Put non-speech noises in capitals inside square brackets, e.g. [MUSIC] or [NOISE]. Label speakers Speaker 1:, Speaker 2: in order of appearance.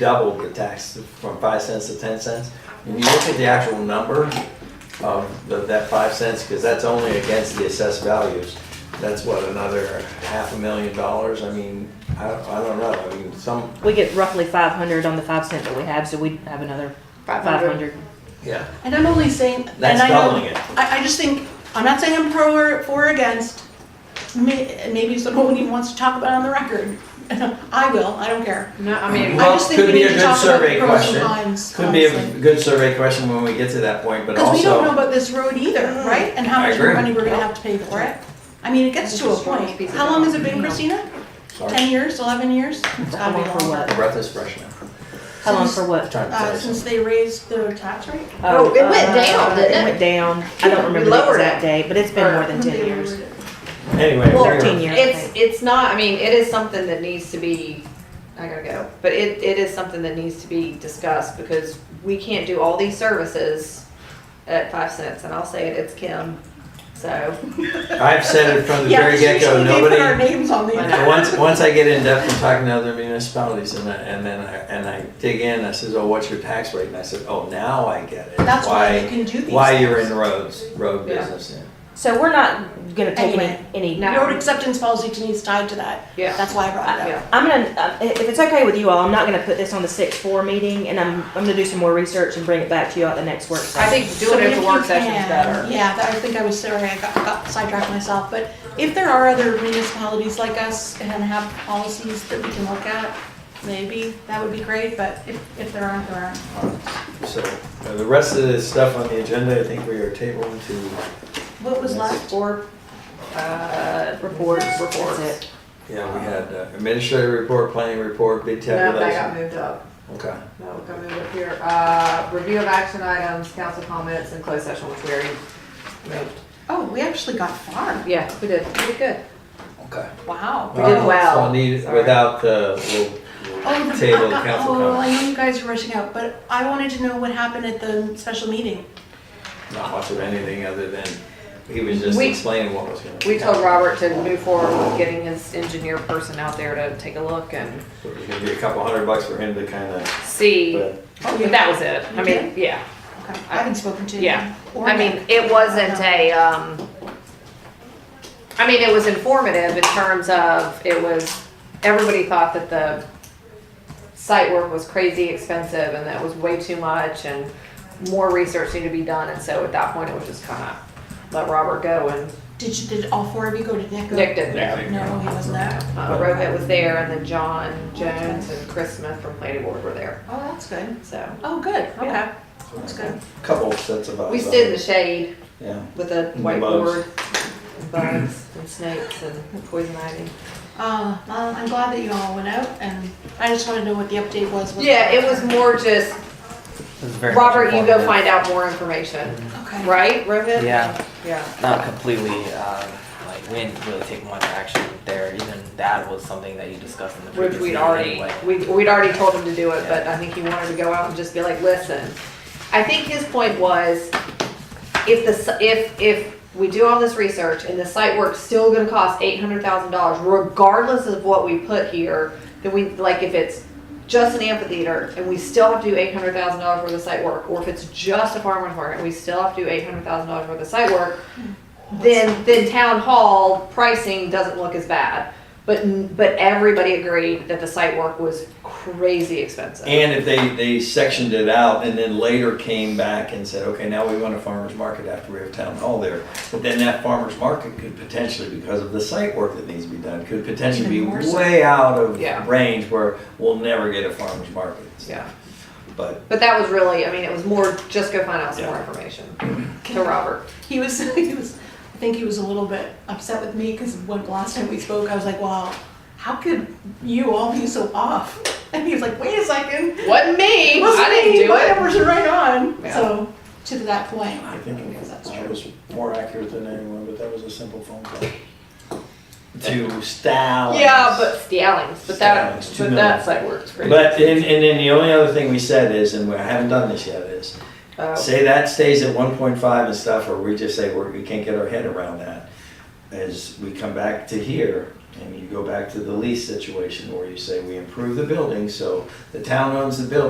Speaker 1: doubled the tax from five cents to ten cents. When you look at the actual number of the- that five cents, because that's only against the assessed values, that's what, another half a million dollars? I mean, I don't, I don't know, I mean, some,
Speaker 2: We get roughly five hundred on the five cent that we have, so we have another five
Speaker 3: 500.
Speaker 2: hundred.
Speaker 1: yeah,
Speaker 3: And I'm only saying,
Speaker 1: that's
Speaker 3: and I
Speaker 1: doubling
Speaker 3: know,
Speaker 1: it.
Speaker 3: I, I just think, I'm not saying I'm pro or, or against. May, and maybe someone even wants to talk about it on the record. [LAUGHS] I will, I don't care.
Speaker 4: No, I mean,
Speaker 3: I
Speaker 1: Well,
Speaker 3: just think
Speaker 1: could
Speaker 3: we
Speaker 1: be
Speaker 3: need
Speaker 1: a
Speaker 3: to
Speaker 1: good
Speaker 3: talk about
Speaker 1: survey
Speaker 3: the pros
Speaker 1: question.
Speaker 3: and cons.
Speaker 1: Could be a good survey question when we get to that point, but also.
Speaker 3: Because we don't know about this road either,
Speaker 2: Mm,
Speaker 3: right? And how
Speaker 1: I
Speaker 3: much
Speaker 1: agree.
Speaker 3: money we're gonna have to pay for it. I mean, it gets to a point. How long has it been, Christina?
Speaker 1: Sorry,
Speaker 3: Ten years, eleven years? It's
Speaker 2: How
Speaker 3: gotta be
Speaker 2: long for
Speaker 3: longer.
Speaker 1: my
Speaker 2: what?
Speaker 1: breath is fresh now.
Speaker 2: How long for what?
Speaker 1: Trying to
Speaker 3: Uh,
Speaker 1: say
Speaker 3: since
Speaker 1: something.
Speaker 3: they raised the tax rate?
Speaker 4: Oh, it went down, didn't
Speaker 2: Uh, It
Speaker 4: it?
Speaker 2: went down. I don't remember the
Speaker 4: lowered
Speaker 2: exact
Speaker 4: it.
Speaker 2: date, but it's been more than
Speaker 3: They
Speaker 2: ten years.
Speaker 3: lowered it.
Speaker 1: Anyway.
Speaker 4: Well,
Speaker 1: we're-
Speaker 2: Thirteen years. I
Speaker 4: it's,
Speaker 2: think.
Speaker 4: it's not, I mean, it is something that needs to be, I gotta go, but it, it is something that needs to be discussed because we can't do all these services at five cents, and I'll say it, it's Kim, [LAUGHS] so.
Speaker 1: I've said it from the
Speaker 3: Yeah,
Speaker 1: very
Speaker 3: 'cause
Speaker 1: get-go,
Speaker 3: usually they
Speaker 1: nobody.
Speaker 3: put our names on [LAUGHS] the.
Speaker 4: I
Speaker 1: And Once, once I get in depth in talking to other municipalities and I, and then I, and I dig in, I says, oh, what's your tax rate? And I said, oh, now I get it.
Speaker 3: That's why you can do these.
Speaker 1: Why you're in roads, road
Speaker 4: Yeah.
Speaker 1: business, yeah.
Speaker 2: So we're not gonna take
Speaker 3: Anyway.
Speaker 2: any, any.
Speaker 4: No.
Speaker 3: Road acceptance policy to me is tied to that.
Speaker 4: Yeah.
Speaker 3: That's why I brought it up.
Speaker 4: Yeah,
Speaker 2: I'm gonna, uh, if it's okay with you all, I'm not gonna put this on the six four meeting, and I'm, I'm gonna do some more research and bring it back to you at the next work
Speaker 4: I
Speaker 2: session.
Speaker 4: think doing it
Speaker 3: So
Speaker 4: at
Speaker 3: if
Speaker 4: the work
Speaker 3: you
Speaker 4: session's
Speaker 3: can-
Speaker 4: better.
Speaker 3: Yeah, that- I think I was sorry, I got, got sidetracked myself, but if there are other municipalities like us and have policies that we can look at, maybe that would be great, but if, if there aren't, there aren't.
Speaker 1: So, uh, the rest of the stuff on the agenda, I think we are tabled to,
Speaker 3: What was left?
Speaker 4: Or, uh,
Speaker 2: Reports,
Speaker 4: reports.
Speaker 2: that's it.
Speaker 1: yeah, we had uh, administrative report, planning report, bid
Speaker 5: No, that got
Speaker 1: tabulation.
Speaker 5: moved up.
Speaker 1: Okay,
Speaker 5: No, we got moved up here. Uh, review of action items, council comments, and closed session, which we already moved.
Speaker 3: Oh, we actually got far.
Speaker 4: yeah, we did, we did good.
Speaker 1: okay.
Speaker 3: Wow.
Speaker 4: We did
Speaker 1: Uh,
Speaker 4: well.
Speaker 1: So I need,
Speaker 4: Sorry.
Speaker 1: without, uh, we'll,
Speaker 3: Oh,
Speaker 1: we'll [LAUGHS]
Speaker 3: the-
Speaker 1: table
Speaker 3: [LAUGHS]
Speaker 1: the
Speaker 3: I- I-
Speaker 1: council
Speaker 3: Oh, I
Speaker 1: comment.
Speaker 3: know you guys are rushing out, but I wanted to know what happened at the special meeting.
Speaker 1: Not much of anything other than, he was just
Speaker 4: We-
Speaker 1: explaining what was gonna.
Speaker 4: We told Robert to move forward with getting his engineer person out there to take a look and
Speaker 1: So It was gonna be a couple hundred bucks for him to kinda,
Speaker 4: see.
Speaker 1: but.
Speaker 4: But Oh, that was it. I mean, yeah.
Speaker 3: Okay, I haven't spoken to.
Speaker 4: Yeah.
Speaker 3: or
Speaker 4: I mean,
Speaker 3: Nick.
Speaker 4: it wasn't a, um, I mean, it was informative in terms of, it was, everybody thought that the site work was crazy expensive and that was way too much and more research needed to be done. And so at that point, it was just kind of let Robert go and
Speaker 3: Did you, did all four of you go to Nick?
Speaker 4: Nick didn't
Speaker 1: Yeah,
Speaker 4: know.
Speaker 1: I think-
Speaker 3: No, he wasn't there.
Speaker 4: Uh, Rohit was there and then John Jones and Chris Smith from planning board were there,
Speaker 3: Oh, that's good.
Speaker 4: so.
Speaker 3: Oh, good, okay.
Speaker 4: Yeah.
Speaker 3: That's good.
Speaker 1: Couple sets of eyes.
Speaker 4: We stood in the shade
Speaker 1: Yeah.
Speaker 4: with a
Speaker 1: And bugs.
Speaker 4: whiteboard, and bugs and snakes and poison ivy.
Speaker 3: Uh, well, I'm glad that you all went out and I just wanted to know what the update was. with-
Speaker 4: Yeah, it was more just, Robert, you go find out more information,
Speaker 3: Okay.
Speaker 4: right, Rohit?
Speaker 6: Yeah,
Speaker 4: Yeah.
Speaker 6: not completely. Um, like we didn't really take much action there. Even that was something that you discussed in the
Speaker 4: Which
Speaker 6: previous
Speaker 4: we'd
Speaker 6: meeting
Speaker 4: already,
Speaker 6: anyway.
Speaker 4: we, we'd already told him to do it, but I think he wanted to go out and just be like, listen. I think his point was, if the, s- if, if we do all this research and the site work's still gonna cost eight hundred thousand dollars, regardless of what we put here, then we, like, if it's just an amphitheater and we still have to do eight hundred thousand dollars worth of site work, or if it's just a farmer's market and we still have to do eight hundred thousand dollars worth of site work, then, then town hall pricing doesn't look as bad. But, but everybody agreed that the site work was crazy expensive.
Speaker 1: And if they, they sectioned it out and then later came back and said, okay, now we want a farmer's market after we have town hall there. But then that farmer's market could potentially, because of the site work that needs to be done, could potentially be
Speaker 3: Even more so.
Speaker 1: way out of
Speaker 4: Yeah.
Speaker 1: range where we'll never get a farmer's market.
Speaker 4: Yeah,
Speaker 1: But
Speaker 4: but that was really, I mean, it was more just go find out some more
Speaker 1: Yeah.
Speaker 4: information to Robert.
Speaker 3: He was, [LAUGHS] he was, I think he was a little bit upset with me because when last time we spoke, I was like, wow, how could you all be so off? [LAUGHS] And he was like, wait a second.
Speaker 4: Wasn't me.
Speaker 3: It wasn't
Speaker 4: I didn't
Speaker 3: me,
Speaker 4: do
Speaker 3: my
Speaker 4: it.
Speaker 3: numbers are right on.
Speaker 4: Yeah.
Speaker 3: So, to that point.
Speaker 1: I think
Speaker 3: That's
Speaker 1: I
Speaker 3: true.
Speaker 1: was more accurate than anyone, but that was a simple phone call. To Stallings.
Speaker 4: Yeah, but Stallings, but that,
Speaker 1: Stallings, two
Speaker 4: but
Speaker 1: million.
Speaker 4: that site work's crazy.
Speaker 1: But, and, and then the only other thing we said is, and I haven't done this yet, is
Speaker 4: Oh.
Speaker 1: Say that stays at one point five and stuff, or we just say, we're, we can't get our head around that, as we come back to here, And you go back to the lease situation where you say, we improve the building, so the town owns the building.